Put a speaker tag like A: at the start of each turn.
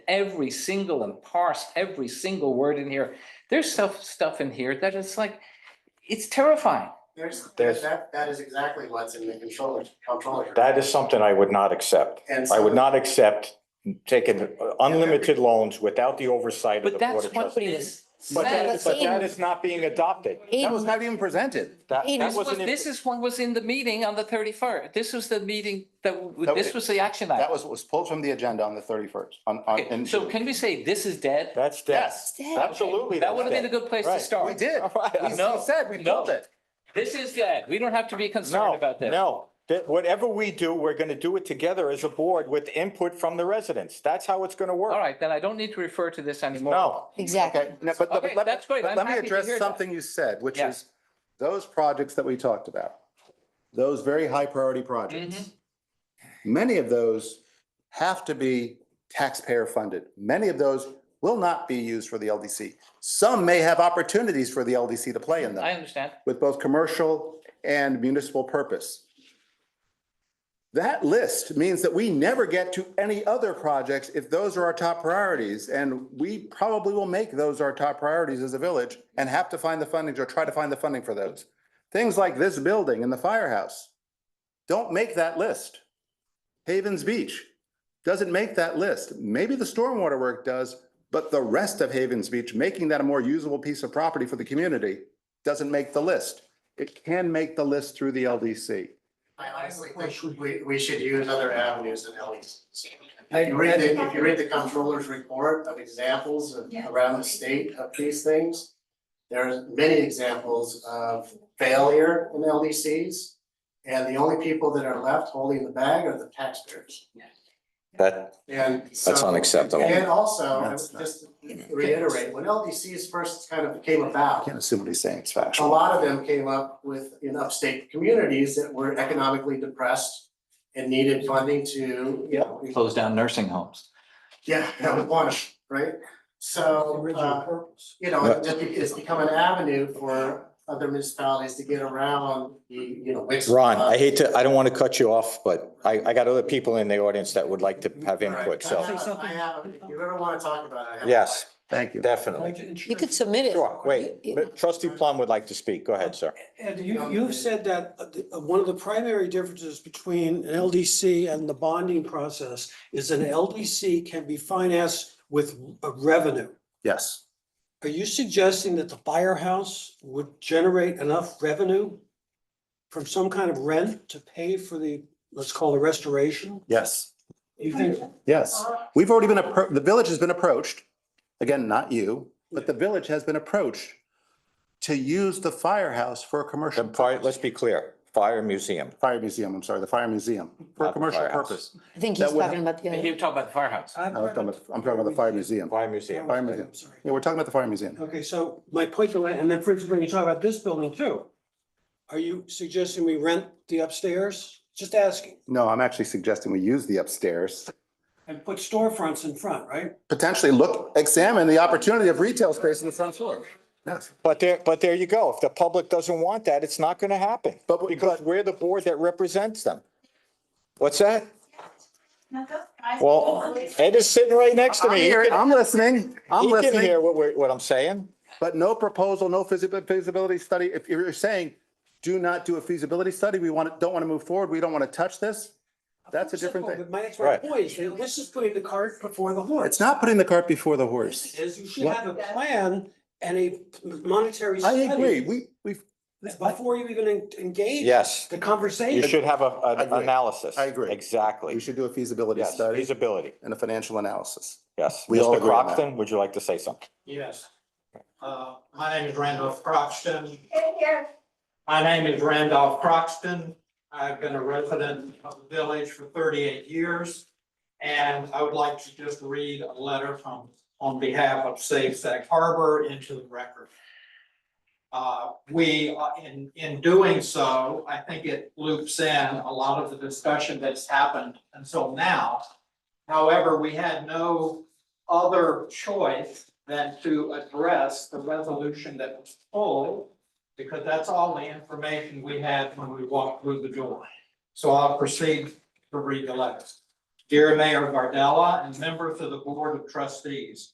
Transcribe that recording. A: every single and parse every single word in here. There's stuff, stuff in here that it's like, it's terrifying.
B: There's,
C: There's-
B: that, that is exactly what's in the controller, controller.
C: That is something I would not accept.
B: And
C: I
B: so-
C: would not accept taking unlimited loans without the oversight of
A: But
C: the board
A: that's
C: of
A: what
C: trustees.
A: this
C: But that,
A: says.
C: but that is not being adopted.
D: That was
E: Eden,
D: not even presented.
C: That,
E: Eden.
C: that
A: This was,
C: wasn't.
A: this
C: in-
A: is what was in the meeting on the thirty-first. This was the meeting that, w-
D: That was-
A: this was the action
D: That
A: item.
D: was, was pulled from the agenda on the thirty-first, on, on,
A: Okay,
D: in
A: So
D: June.
A: can we say this is dead?
C: That's death.
D: Yes,
C: Absolutely.
A: That would have been a
C: that's death.
A: good place to
C: Right.
D: we
A: start.
D: did. We
A: No,
D: said, we
A: no.
D: pulled it.
A: This is dead. We don't have to be concerned
C: No,
A: about this.
C: no. That- whatever we do, we're gonna do it together as a board with input from the residents. That's how it's gonna work.
A: All right, then I don't need to refer to this anymore.
C: No,
E: exactly.
D: Okay, no, but, but
A: Okay,
D: let-
A: that's great.
D: but
A: I'm
D: let me
A: happy to
D: address
A: hear that.
D: something you said, which
A: Yeah.
D: is those projects that we talked about, those very high priority projects.
A: Mm-hmm.
D: Many of those have to be taxpayer funded. Many of those will not be used for the LDC. Some may have opportunities for the LDC to play in them.
A: I understand.
D: with both commercial and municipal purpose. That list means that we never get to any other projects if those are our top priorities. And we probably will make those our top priorities as a village and have to find the funding or try to find the funding for those. Things like this building and the firehouse don't make that list. Havens Beach doesn't make that list. Maybe the stormwater work does, but the rest of Havens Beach, making that a more usable piece of property for the community, doesn't make the list. It can make the list through the LDC.
B: I honestly think we, we should use other avenues than LEs.
F: I-
B: If you read the, if you read the comptroller's report of examples of-
F: Yeah.
B: around the state of these things, there are many examples of failure in LDCs. And the only people that are left holding the bag are the taxpayers.
C: that,
B: And so.
C: That's unacceptable.
B: And also, I would
D: That's not-
B: just reiterate, when LDCs first kind of came
D: I
B: about,
D: can't assume what he's saying is
B: a
D: factual.
B: lot of them came up with in upstate communities that were economically depressed and needed funding to, you know,
A: Close down nursing homes.
B: yeah, that was one, right? So, uh, you know, it just be- it's become an avenue for other municipalities to get around the, you know, uh, Wix.
C: Ron, I hate to, I don't want to cut you off, but I, I got other people in the audience that would like to have input,
B: I
C: so,
B: have, I have, if you ever wanna talk about it, I have.
C: yes,
D: Thank you.
C: definitely.
E: You could submit it.
C: Sure, wait, but trustee Plum would like to speak. Go ahead, sir.
F: Ed, you, you've said that uh, the- uh, one of the primary differences between an LDC and the bonding process is an LDC can be financed with a revenue.
D: Yes.
F: Are you suggesting that the firehouse would generate enough revenue from some kind of rent to pay for the, let's call it restoration?
D: Yes.
F: You think,
D: Yes. We've already been, appro- the village has been approached, again, not you, but the village has been approached to use the firehouse for a commercial.
C: The fire, let's be clear, fire museum.
D: Fire museum, I'm sorry, the fire museum, for a
C: Not the
D: commercial
C: firehouse.
D: purpose.
E: I think
D: That
E: he's
D: would-
E: talking about the
A: You
E: other.
A: talk about the firehouse.
F: I'm
D: No, I'm talking about- I'm talking about the fire museum.
C: Fire museum.
D: Fire museum.
F: I'm sorry.
D: Yeah, we're talking about the fire museum.
F: Okay, so my point, to that, and then for instance, when you talk about this building too, are you suggesting we rent the upstairs? Just asking,
D: No, I'm actually suggesting we use the upstairs.
F: and put storefronts in front, right?
D: Potentially look, examine the opportunity of retail space in the front floor. Yes.
C: But there, but there you go. If the public doesn't want that, it's not gonna happen.
D: But-
C: Because we're the board that represents them. What's that?
F: Not
C: Well, Ed is sitting right next to
D: I'm
C: me. He
D: here,
C: can-
D: I'm listening, I'm
C: He can
D: listening,
C: hear what we're, what I'm saying.
D: but no proposal, no feasibi- feasibility study. If you're saying, do not do a feasibility study, we want, to don't want to move forward, we don't want to touch this, that's a different thing.
F: But my, that's my
C: Right.
F: point, is that this is putting the cart before the horse.
D: It's not putting the cart before the
F: This
D: horse.
F: is, you should have a plan and a monetary
D: I
F: study.
D: agree, we, we,
F: Before you even en- engage.
C: Yes.
F: The
C: You
F: conversation.
C: should have a,
D: I
C: an
D: agree.
C: analysis.
D: I agree. we
C: Exactly.
D: should do a feasibility
C: Yes,
D: study
C: feasibility.
D: and a financial analysis.
C: Yes.
D: We all
C: Mr.
D: agree on that.
C: Croxton, would you like to say something?
G: Yes. Uh, my name is Randolph Croxton. My name is Randolph Croxton. I've been a resident of the village for thirty-eight years. And I would like to just read a letter from, on behalf of Safe Sag Harbor into the record. Uh, we, uh, in, in doing so, I think it loops in a lot of the discussion that's happened until now. However, we had no other choice than to address the resolution that was pulled. Because that's all the information we had when we walked through the door. So I'll proceed to read the letters. Dear Mayor Gardella and members of the Board of Trustees,